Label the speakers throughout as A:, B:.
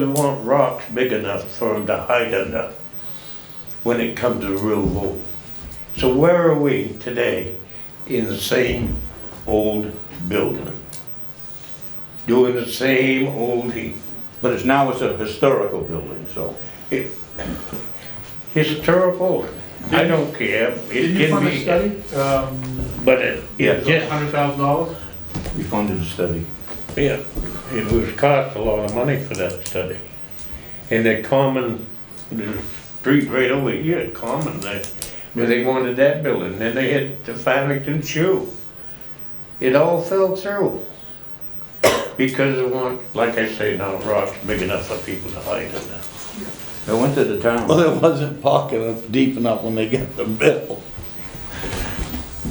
A: We want rocks big enough for them to hide under when it comes to real vote. So where are we today in the same old building? Doing the same old heat.
B: But it's now it's a historical building, so.
A: It- Historical, I don't care, it
C: Did you
A: can
C: fund a
A: be,
C: study? Um,
A: but it, it
C: a
A: just,
C: hundred thousand dollars?
B: We funded a study.
A: yeah, it was cost a lot of money for that study. And the common, the street right over here, common, they, but they wanted that building, then they hit the Farmington shoe. It all fell through. Because of one, like I say now, rocks big enough for people to hide in there.
B: I went to the town.
D: Well, it wasn't pocket enough, deep enough when they get the bill.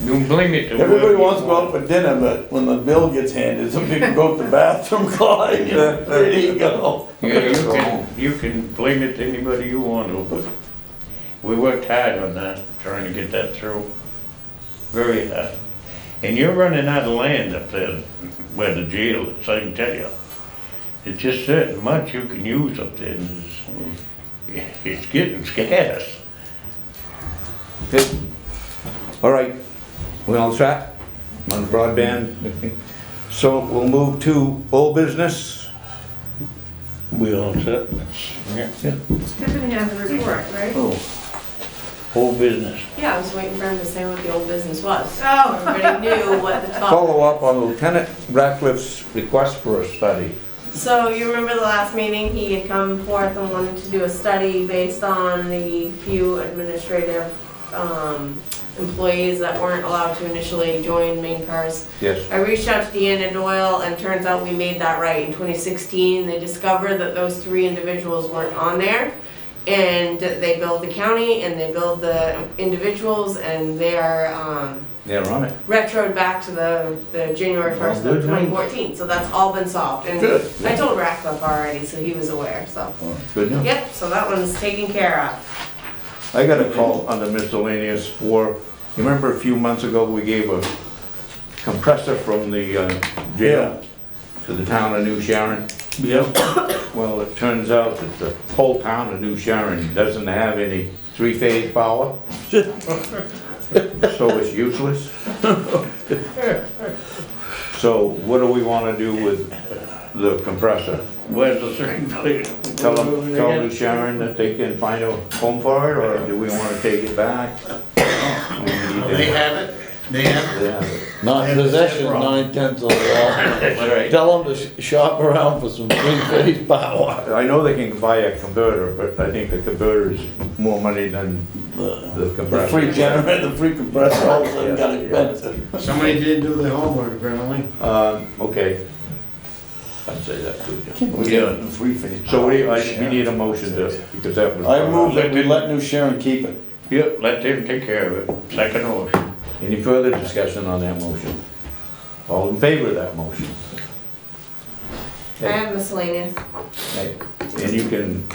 A: You can blame it to whoever
D: Everybody
A: you
D: wants to go
A: want.
D: out for dinner, but when the bill gets handed, some people go to the bathroom, Clyde, there you go.
A: Yeah, you can, you can blame it to anybody you want to, but we worked hard on that, trying to get that through. Very hard. And you're running out of land up there where the jail is, I can tell you. It's just certain much you can use up there. and It's it's getting scarce.
B: Okay. All right, we all set on broadband? So we'll move to old business.
A: We all set?
B: Yeah.
E: Tiffany has a report, right?
A: Oh, whole business.
F: Yeah, I was waiting for him to say what the old business was.
E: Oh,
F: Everybody knew what the topic.
B: Follow up on Lieutenant Ratcliffe's request for a study.
F: So you remember the last meeting, he had come forth and wanted to do a study based on the few administrative um, employees that weren't allowed to initially join main cars.
B: Yes.
F: I reached out to Deanna Doyle and turns out we made that right. In 2016, they discovered that those three individuals weren't on there. And they billed the county and they billed the individuals and they are, um,
B: They're on it.
F: retroed back to the, the January
B: Well,
F: first
B: good
F: of
B: news.
F: twenty fourteen, so that's all been solved, and
B: Good.
F: I told Ratcliffe already, so he was aware, so.
B: Good news.
F: Yep, so that one's taken care of.
B: I got a call under miscellaneous for, you remember a few months ago, we gave a compressor from the uh, jail to the town of New Sharon?
A: Yep.
B: Well, it turns out that the whole town of New Sharon doesn't have any three-phase power. So it's useless. So what do we want to do with the compressor?
A: Where's the thing, please?
B: Tell them, tell New Sharon that they can find a home for it, or do we want to take it back? We
C: They
B: need to-
C: have it, they have it.
B: Yeah.
D: Not possession, nine tenths of the
B: All
D: law.
B: right.
D: Tell them to sh- shop around for some three-phase power.
B: I know they can buy a converter, but I think the converter is more money than the
D: The free
B: compressor.
D: generator, the free compressor, all of them got
B: Yeah, yeah.
D: expensive.
C: Somebody did do their homework apparently.
B: Um, okay. I'd say that too, yeah.
A: Yeah.
B: So we, I, we need a motion to, because that was.
D: I move that we let New Sharon keep it.
A: Yep, let them take care of it, second order.
B: Any further discussion on that motion? All in favor of that motion?
F: I have miscellaneous.
B: Okay. And you can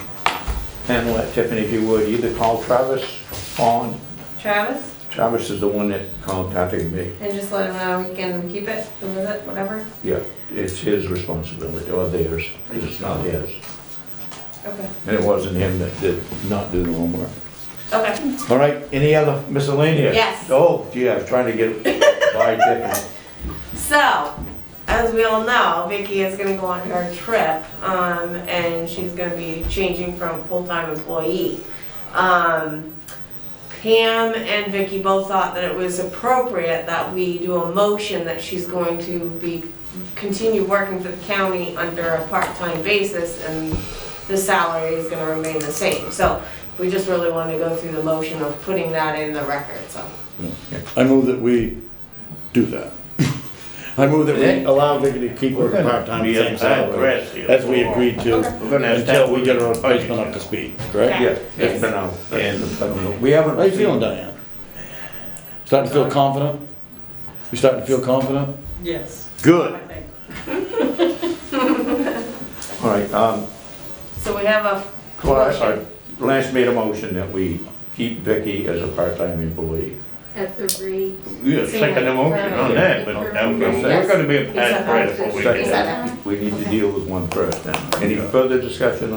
B: handle that, Tiffany, if you would, either call Travis on,
F: Travis,
B: Travis is the one that contacted me.
F: and just let him know he can keep it, move it, whatever,
B: Yeah, it's his responsibility, or theirs, 'cause it's not his.
F: okay,
B: And it wasn't him that did not do the homework.
F: okay.
B: All right, any other miscellaneous?
F: Yes.
B: Oh, gee, I was trying to get by Tiffany.
F: So, as we all know, Vicky is gonna go on her trip, um, and she's gonna be changing from full-time employee. Um, Pam and Vicky both thought that it was appropriate that we do a motion that she's going to be, continue working for the county under a part-time basis, and the salary is gonna remain the same. So, we just really wanted to go through the motion of putting that in the record, so.
D: I move that we do that. I move that we allow Vicky to keep working part-time,
A: Be
D: same salary,
A: aggressive.
D: as we agreed to,
A: We're gonna have to.
D: until we get our replacement up to speed, correct?
F: Okay.
B: Yeah, it's been out, and we haven't.
D: How you feeling,
B: received-
D: Diane? Starting to feel confident? You starting to feel confident?
G: Yes, I
D: Good.
G: think.
B: All right, um,
F: So we have a
B: Well, I- I- Lance made a motion that we keep Vicky as a part-time employee.
E: at the rate.
A: Yeah, second emotion on that, but um, we're gonna be a
G: Yes.
A: pass right if we
B: Second.
A: do
G: Is
A: that.
G: that-
B: We need to deal with one first then. Any further discussion